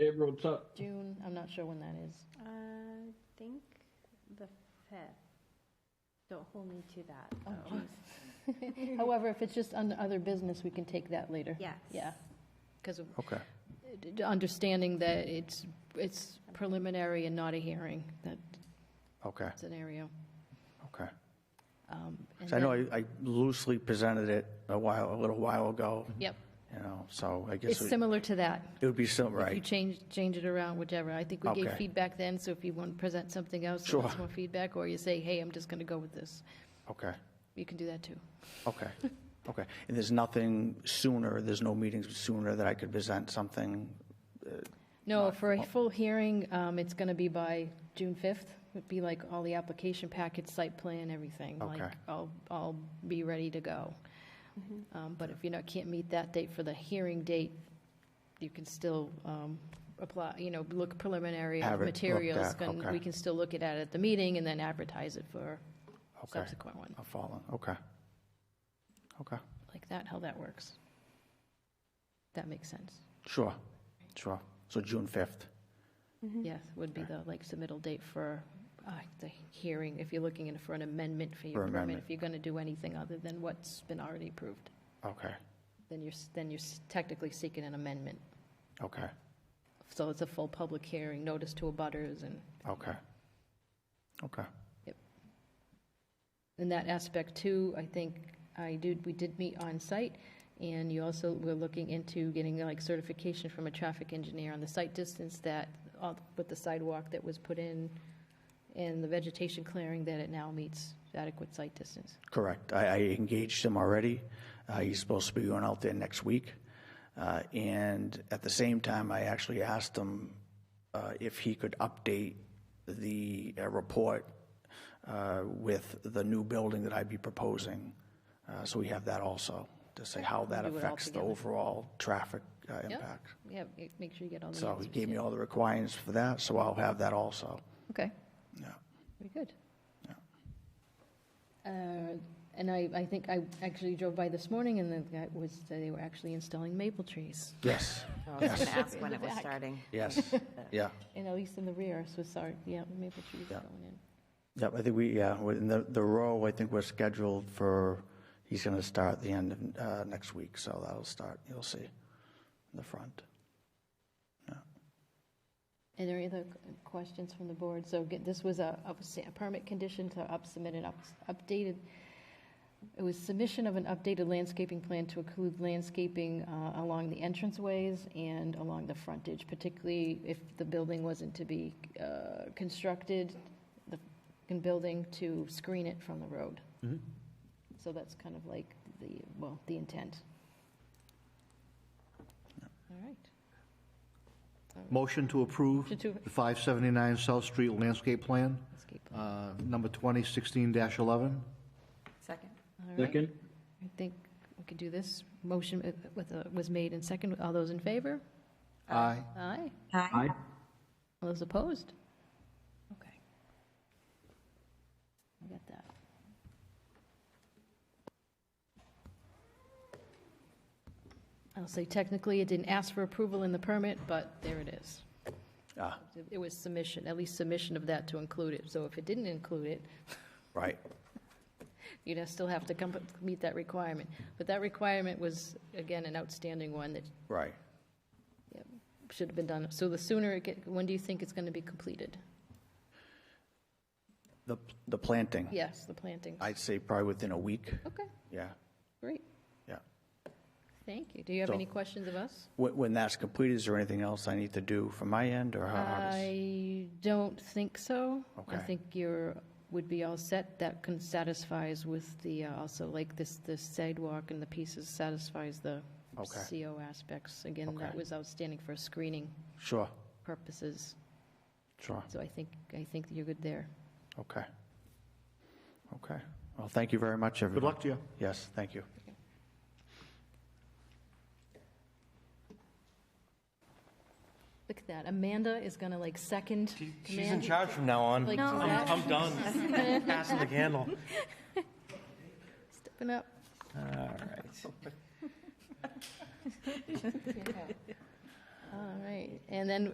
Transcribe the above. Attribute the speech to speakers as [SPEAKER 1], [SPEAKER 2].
[SPEAKER 1] Road Sup.
[SPEAKER 2] June, I'm not sure when that is.
[SPEAKER 3] Uh, I think the fifth. Don't hold me to that. though.
[SPEAKER 2] However, if it's just on other business, we can take that later.
[SPEAKER 3] Yes.
[SPEAKER 2] Yeah, because
[SPEAKER 4] Okay.
[SPEAKER 2] understanding that it's, it's preliminary and not a hearing, that
[SPEAKER 4] Okay.
[SPEAKER 2] scenario.
[SPEAKER 4] Okay.
[SPEAKER 2] Um, and
[SPEAKER 4] 'Cause I know
[SPEAKER 2] then-
[SPEAKER 4] I I loosely presented it a while, a little while ago,
[SPEAKER 2] Yep,
[SPEAKER 4] you know, so I
[SPEAKER 2] it's
[SPEAKER 4] guess it
[SPEAKER 2] similar to that.
[SPEAKER 4] it would be similar,
[SPEAKER 2] You
[SPEAKER 4] right?
[SPEAKER 2] change, change it around, whichever. I think we gave
[SPEAKER 4] Okay.
[SPEAKER 2] feedback then, so if you want to present something else, that wants
[SPEAKER 4] Sure.
[SPEAKER 2] more feedback, or you say, hey, I'm just going to go with this,
[SPEAKER 4] Okay,
[SPEAKER 2] you can do that too.
[SPEAKER 4] okay, okay. And there's nothing sooner, there's no meetings sooner that I could present something?
[SPEAKER 2] No, for a full hearing, um, it's going to be by June 5th. It'd be like all the application packets, site plan, everything. Like,
[SPEAKER 4] Okay.
[SPEAKER 2] I'll, I'll be ready to go. Um, But if you know, can't meet that date for the hearing date, you can still um, apply, you know, look preliminary
[SPEAKER 4] Have
[SPEAKER 2] of
[SPEAKER 4] it looked
[SPEAKER 2] materials.
[SPEAKER 4] at,
[SPEAKER 2] can-
[SPEAKER 4] okay.
[SPEAKER 2] We can still look at it at the meeting and then advertise it for
[SPEAKER 4] Okay,
[SPEAKER 2] subsequent one.
[SPEAKER 4] I'm following, okay. Okay,
[SPEAKER 2] Like that, how that works. That makes sense.
[SPEAKER 4] sure, sure. So June 5th,
[SPEAKER 2] Yes, would be the, like, submittal date for uh, the hearing, if you're looking in for an amendment for
[SPEAKER 4] For
[SPEAKER 2] your permit.
[SPEAKER 4] amendment.
[SPEAKER 2] If you're going to do anything other than what's been already approved,
[SPEAKER 4] okay,
[SPEAKER 2] then you're, s- then you're s- technically seeking an amendment.
[SPEAKER 4] okay,
[SPEAKER 2] So it's a full public hearing, notice to abutters, and,
[SPEAKER 4] okay, okay,
[SPEAKER 2] in that aspect too, I think I do, we did meet on-site, and you also were looking into getting, like, certification from a traffic engineer on the site distance that, uh, with the sidewalk that was put in, and the vegetation clearing, that it now meets adequate site distance.
[SPEAKER 4] correct. I I engaged him already. Uh, He's supposed to be going out there next week. Uh, And at the same time, I actually asked him uh, if he could update the uh, report uh, with the new building that I'd be proposing. Uh, So we have that also, to say how that
[SPEAKER 2] Do it all
[SPEAKER 4] affects the
[SPEAKER 2] together.
[SPEAKER 4] overall traffic uh, impact.
[SPEAKER 2] Yeah, it- make sure you get all the
[SPEAKER 4] So
[SPEAKER 2] answers.
[SPEAKER 4] he gave me all the requirements for that, so I'll have that also.
[SPEAKER 2] Okay,
[SPEAKER 4] Yeah.
[SPEAKER 2] very good. Uh, And I, I think I actually drove by this morning, and the guy was, they were actually installing maple trees,
[SPEAKER 4] Yes,
[SPEAKER 5] I was going to ask when it was
[SPEAKER 2] Back.
[SPEAKER 5] starting.
[SPEAKER 4] yes, yeah.
[SPEAKER 2] and at least in the rear, so sorry, yeah, maple trees
[SPEAKER 4] Yeah.
[SPEAKER 2] going in.
[SPEAKER 4] Yep, I think we, yeah, in the, the row, I think we're scheduled for, he's going to start at the end of uh, next week, so that'll start, you'll see, in the front.
[SPEAKER 2] Are there any other questions from the board? So get- this was a up- a permit condition to up- submit an up- updated, it was submission of an updated landscaping plan to include landscaping uh, along the entranceways and along the frontage, particularly if the building wasn't to be uh, constructed, the fucking building to screen it from the road. So that's kind of like the, well, the intent. All right.
[SPEAKER 6] Motion to approve
[SPEAKER 2] Motion to-
[SPEAKER 6] the 579 South Street landscape plan,
[SPEAKER 2] Landscape plan.
[SPEAKER 6] uh, number 2016-11.
[SPEAKER 5] Second?
[SPEAKER 2] All right.
[SPEAKER 1] Second?
[SPEAKER 2] I think we could do this. Motion with- with, a- was made and second. All those in favor?
[SPEAKER 6] Aye.
[SPEAKER 2] Aye.
[SPEAKER 1] Aye.
[SPEAKER 2] All those opposed? Okay. I got that. I'll say technically, it didn't ask for approval in the permit, but there it is.
[SPEAKER 4] Ah,
[SPEAKER 2] It was submission, at least submission of that to include it. So if it didn't include it,
[SPEAKER 4] right,
[SPEAKER 2] you'd have- still have to come, meet that requirement. But that requirement was, again, an outstanding one that
[SPEAKER 4] right.
[SPEAKER 2] should have been done. So the sooner it get, when do you think it's going to be completed?
[SPEAKER 4] The, the planting,
[SPEAKER 2] Yes, the planting.
[SPEAKER 4] I'd say probably within a week,
[SPEAKER 2] Okay,
[SPEAKER 4] yeah,
[SPEAKER 2] great.
[SPEAKER 4] yeah.
[SPEAKER 2] Thank you. Do you have
[SPEAKER 4] So-
[SPEAKER 2] any questions of us?
[SPEAKER 4] When, when that's completed, is there anything else I need to do from my end, or how- how does?
[SPEAKER 2] I don't think so. I
[SPEAKER 4] Uh, Okay.
[SPEAKER 2] think you're, would be all set. That can satisfies with the, uh, also like this, the sidewalk and the pieces satisfies the
[SPEAKER 4] Okay.
[SPEAKER 2] CO aspects. Again, that
[SPEAKER 4] Okay.
[SPEAKER 2] was outstanding for screening
[SPEAKER 4] Sure,
[SPEAKER 2] purposes.
[SPEAKER 4] sure,
[SPEAKER 2] So I think, I think you're good there.
[SPEAKER 4] okay. Okay, well, thank you very much, everyone.
[SPEAKER 6] Good luck to you.
[SPEAKER 4] Yes, thank you.
[SPEAKER 2] Look at that. Amanda is going to like second.
[SPEAKER 7] She's in
[SPEAKER 2] command.
[SPEAKER 7] charge from now on.
[SPEAKER 2] Like,
[SPEAKER 7] I'm, I'm done. Passing the candle.
[SPEAKER 2] Stepping up.
[SPEAKER 7] All right.
[SPEAKER 2] All right. And then